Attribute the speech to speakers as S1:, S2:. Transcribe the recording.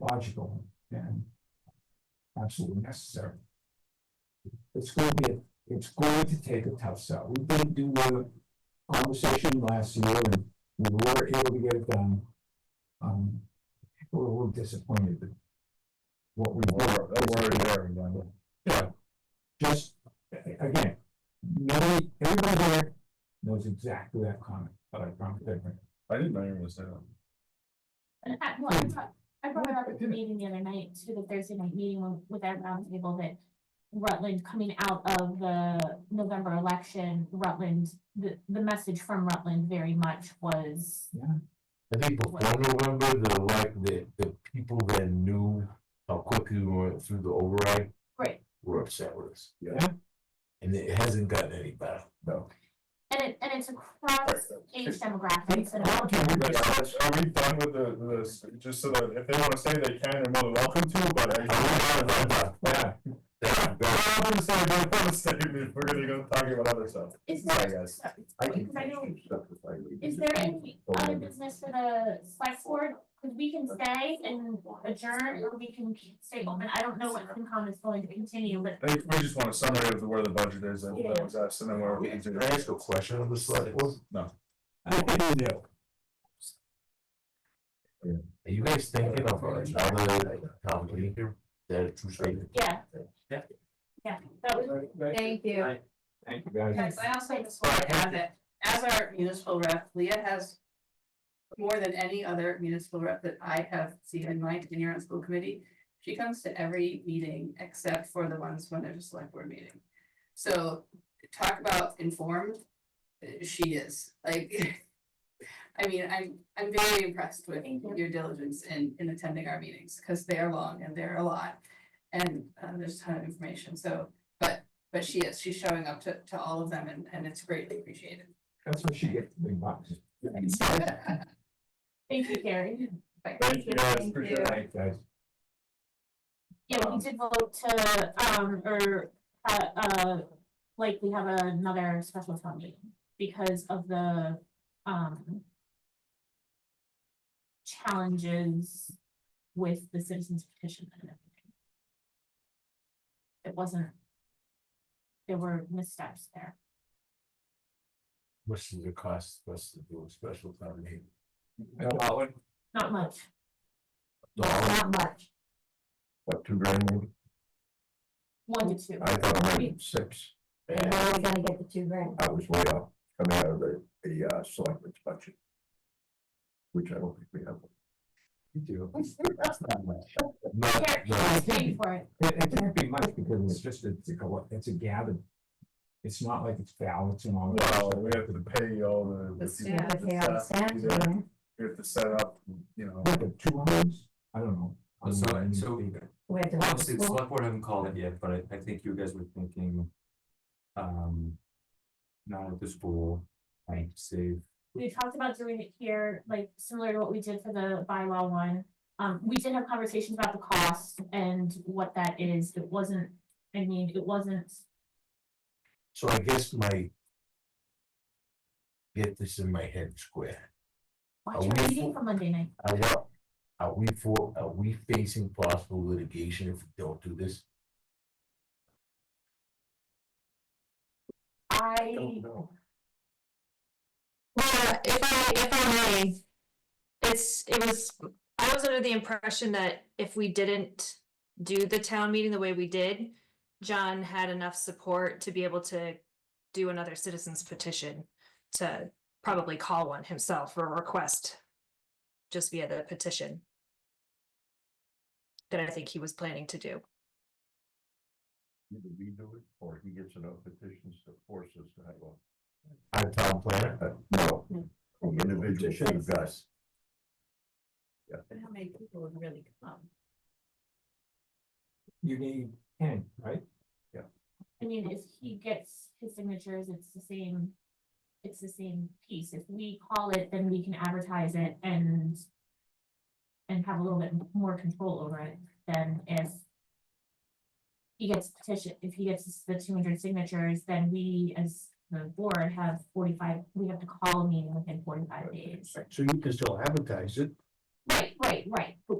S1: logical and absolutely necessary. It's going to be, it's going to take a tough sell. We did do a conversation last year and we were able to get it done. Um, we're a little disappointed that what we were. Yeah. Just, a- a- again, nobody, everybody here knows exactly that comment, but I promise they're right.
S2: I didn't know you was down.
S3: And I, well, I brought, I brought it up at the meeting the other night, to the Thursday night meeting when- with that roundtable that Rutland coming out of the November election, Rutland, the, the message from Rutland very much was
S4: I think before November, the like, the, the people that knew how quickly we went through the override
S3: great.
S4: were upset with us.
S2: Yeah.
S4: And it hasn't gotten any better.
S2: No.
S3: And it, and it's across age demographics and all.
S2: Can we just- Are we done with the, the, s- just so that if they wanna say they can, they're more than welcome to, but. I-
S1: Yeah,
S4: Yeah, but-
S2: I'm gonna say, I'm gonna say, we're gonna go talking about other stuff.
S3: Is there,
S2: guys.
S3: because I know, is there any other business for the select board? Cause we can stay and adjourn, or we can stay open, I don't know what FinCom is going to continue, but
S2: I think we just want a summary of where the budget is and
S3: Yeah.
S2: what was us and then where we can do.
S4: Can I ask a question on the slide?
S2: No.
S1: I think so.
S4: Are you guys thinking of another company here that a true statement?
S3: yeah.
S5: Yeah.
S3: Yeah, that was
S6: Thank you.
S1: Thank you guys.
S6: Guys, I also just want to add that as our municipal rep, Leah has more than any other municipal rep that I have seen in my tenure on school committee, she comes to every meeting except for the ones when there's a select board meeting. So talk about informed, uh, she is, like, I mean, I'm, I'm very impressed with
S3: Thank you.
S6: your diligence in, in attending our meetings, because they are long and they're a lot. And, uh, there's a ton of information, so, but, but she is, she's showing up to, to all of them and, and it's greatly appreciated.
S1: That's what she gets, the big bucks.
S3: Thank you, Carrie.
S2: Thank you guys,
S3: Thank
S2: appreciate
S6: you.
S2: it.
S1: Thanks, guys.
S3: Yeah, we did vote to, um, or, uh, uh, like, we have another special town meeting because of the, um, challenges with the citizens petition and everything. It wasn't, there were missteps there.
S4: What's the cost for us to do a special town meeting?
S3: Not much,
S4: Dollar,
S3: not much,
S4: what, two grand? maybe?
S3: one to two.
S4: I thought it might be six.
S7: And
S4: And
S7: where are we gonna get the two grand?
S4: I was way off coming out of the, the, uh, selectmen's budget. Which I don't think we have.
S1: You do.
S4: That's not much. No,
S3: Here,
S4: no.
S3: he's paying for it.
S1: It, it can't be much because it's just, a- it's a, coll- it's a gathered. It's not like it's ballots and all that.
S2: Well, we have to pay all the.
S6: The
S2: people
S6: Yeah,
S7: Okay, all the
S2: that staff,
S7: stats,
S2: yeah.
S7: yeah.
S2: We have to set up, you know.
S1: Like a two hundreds, I don't know. I'm
S5: That's
S1: not
S5: right,
S1: even
S5: so-
S1: thinking.
S7: We have to. vote
S5: Obviously, the
S7: school.
S5: select board haven't called it yet, but I, I think you guys were thinking, um, not at the school, like save.
S3: we talked about doing it here, like similar to what we did for the bylaw one. Um, we did have conversations about the cost and what that is. It wasn't, I mean, it wasn't,
S4: So I guess my. Get this in my head square.
S3: watch your
S4: Are we-
S3: meeting for Monday night.
S4: Are what, are we for, are we facing possible litigation if we don't do this?
S3: I,
S6: Oh,
S4: know.
S8: Well, if I, if I may, it's, it was, I was under the impression that if we didn't do the town meeting the way we did, John had enough support to be able to do another citizens petition to probably call one himself or request just via the petition that I think he was planning to do.
S4: Either we do it or he gets enough petitions to force us to have a. Our town planner? No. Individual should guys.
S6: But how many people would really come?
S1: You need ten, right?
S3: I mean, if he gets his signatures, it's the same, it's the same piece. If we call it, then we can advertise it and and have a little bit more control over it than if he gets petition, if he gets the two hundred signatures, then we as the board have forty-five, we have to call a meeting within forty-five days.
S4: So you can still advertise it.
S3: Right, right, right. But